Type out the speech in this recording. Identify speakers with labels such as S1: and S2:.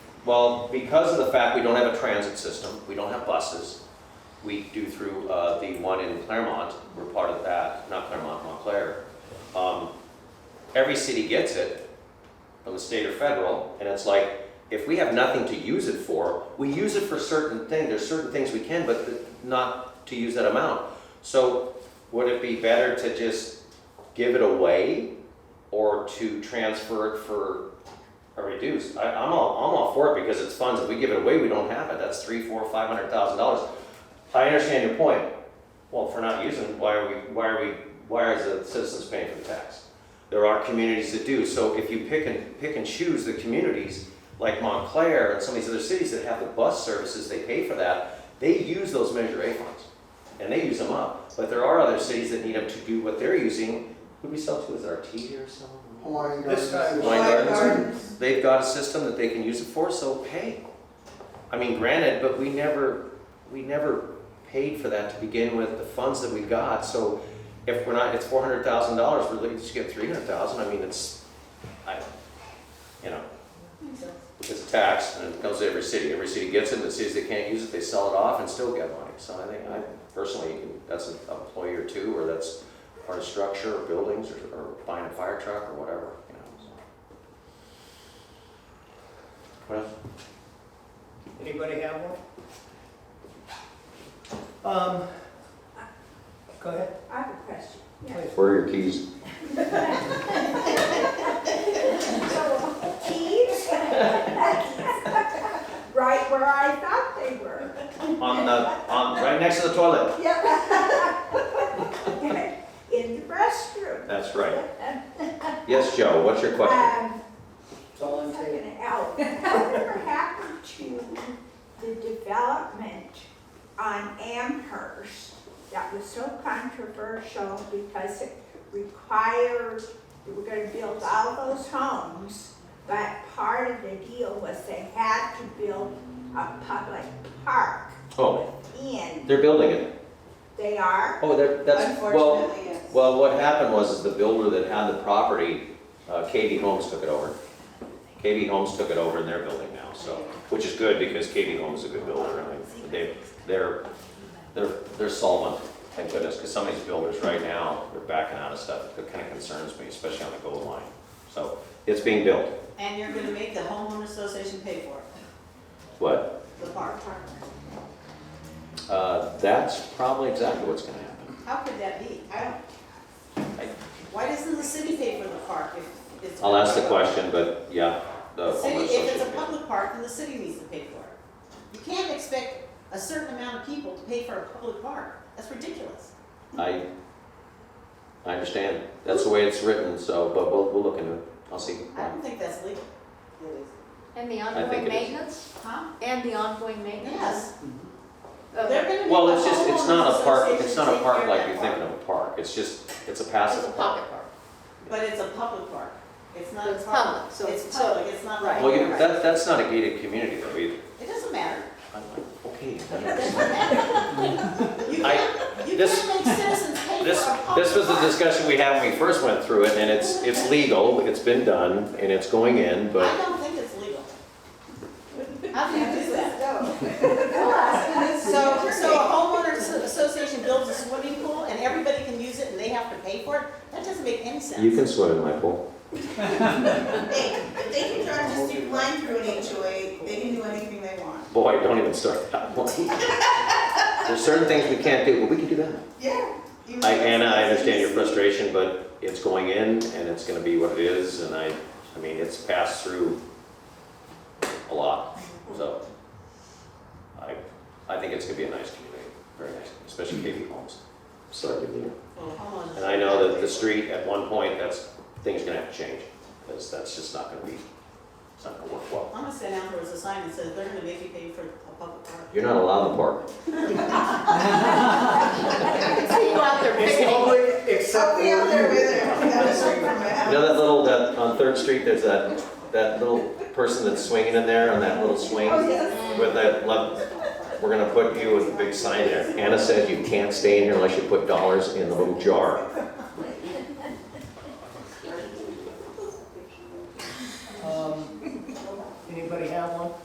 S1: Well, because of the fact we don't have a transit system, we don't have buses, we do through uh, the one in Claremont, we're part of that, not Claremont, Montclair. Um, Every city gets it, from the state or federal, and it's like, if we have nothing to use it for, we use it for certain things, there's certain things we can, but th- not to use that amount. So would it be better to just give it away or to transfer it for or reduce. I, I'm all, I'm all for it because it's funds. If we give it away, we don't have it. That's three, four, five hundred thousand dollars. I understand your point. Well, if we're not using, it, why are we, why are we, why is the citizens paying for the tax? There are communities that do. So if you pick and, pick and choose the communities like Montclair and some of these other cities that have the bus services, they pay for that. They use those Measure A funds and they use them up. But there are other cities that need them to do what they're using. Who do we sell to? Is it Artesia or someone?
S2: Hawaiian
S3: This
S2: Gardens.
S3: time-
S1: Wine
S4: Wine
S1: gardens.
S4: gardens.
S1: They've got a system that they can use it for, so pay. I mean, granted, but we never, we never paid for that to begin with, the funds that we got, so if we're not, it's four hundred thousand dollars, we're looking to get three hundred thousand, I mean, it's, I, you know, it's a tax, and it goes to every city, every city gets it, and the cities that can't use it, they sell it off and still get money, so I think, I personally, that's an employee or two, or that's part of structure, or buildings, or, or buying a fire truck, or whatever, you know, so. Well,
S3: Anybody have one? Um, go ahead,
S4: I have a question. Yeah.
S3: please.
S5: Where are your keys?
S4: So, keys? Right where I thought they were.
S1: on the, on, right next to the toilet.
S4: Yep. In the restroom.
S1: That's right. Yes, Joe, what's your question?
S4: Um,
S3: It's all in favor.
S4: Fucking hell. Whatever happened to the development on Amherst that was so controversial because it required, they were gonna build all those homes, but part of the deal was they had to build a public park
S1: Oh,
S4: in,
S1: they're building it.
S4: they are,
S1: Oh, they're, that's, well,
S6: Unfortunately, yes.
S1: well, what happened was is the builder that had the property, uh, KB Homes took it over. KB Homes took it over and they're building now, so, which is good because KB Homes is a good builder. I mean, they, they're, they're, they're solvent, thank goodness, because some of these builders right now, they're backing out of stuff. That kind of concerns me, especially on the gold line. So it's being built.
S6: And you're gonna make the homeowner association pay for it,
S1: What?
S6: the park.
S1: Uh, That's probably exactly what's going to happen.
S6: How could that be? I don't, why doesn't the city pay for the park if it's?
S1: I'll ask the question, but yeah, the
S6: The city,
S1: homeowners
S6: if it's a
S1: association.
S6: public park, then the city needs to pay for it. You can't expect a certain amount of people to pay for a public park. That's ridiculous.
S1: I, I understand. That's the way it's written, so, but we'll, we'll look into it. I'll see.
S6: I don't think that's legal.
S7: And the
S1: I think
S7: ongoing
S1: it is.
S7: maintenance?
S6: Huh?
S7: And the ongoing maintenance?
S6: Yes.
S7: of-
S6: They're gonna make
S1: Well,
S6: the
S1: it's just, it's not
S6: homeowners
S1: a park,
S6: association
S1: it's not a
S6: take care
S1: park
S6: of
S1: like
S6: that
S1: you're
S6: park.
S1: thinking of a park. It's just, it's a
S7: It's a
S1: passive park.
S7: pocket park.
S6: But it's a public park. It's not a
S7: It's
S6: park.
S7: public, so-
S6: It's
S7: so-
S6: public, it's not like.
S7: right.
S1: Well, you- that, that's not a gated community though either.
S6: It doesn't matter.
S1: I'm like, okay.
S6: You
S1: I-
S6: can't, you
S1: this-
S6: can't make citizens pay
S1: This,
S6: for a public
S1: this was the
S6: park.
S1: discussion we had when we first went through it, and it's, it's legal, it's been done, and it's going in,
S6: I
S1: but
S6: don't think it's legal. How do you do that? So,
S4: so,
S6: so a homeowners association builds a swimming pool and everybody can use it and they have to pay for it? That doesn't make any sense.
S1: you can swim in my pool.
S8: They, if they can draw just a line through an HOA, they can do anything they want.
S1: Boy, don't even start that one. There's certain things we can't do, but we can do that.
S8: Yeah. you
S1: I,
S8: know,
S1: Anna, I understand your
S8: it's-
S1: frustration, but it's going in and it's gonna be what it is, and I, I mean, it's passed through a lot, so. I, I think it's gonna be a nice community, very nice, especially KB Homes. So,
S6: Well, homeowners-
S1: and I know that the street, at one point, that's, things are gonna have to change, because that's just not gonna be, it's not gonna work well.
S6: I'm gonna stand out there as a sign that says they're gonna make you pay for a public park.
S1: You're not allowed to park.
S7: See you out there
S3: It's
S7: picking.
S3: public except
S8: Up
S3: for
S8: the other way
S3: you.
S8: there, down the street from my
S1: You
S8: house.
S1: know that little, that, on Third Street, there's that, that little person that's swinging in there on that little swing
S8: Oh,
S7: Mm.
S8: yes.
S1: with that, love, we're gonna put you with a big sign there. Anna says you can't stay in here unless you put dollars in the little jar.
S3: Um,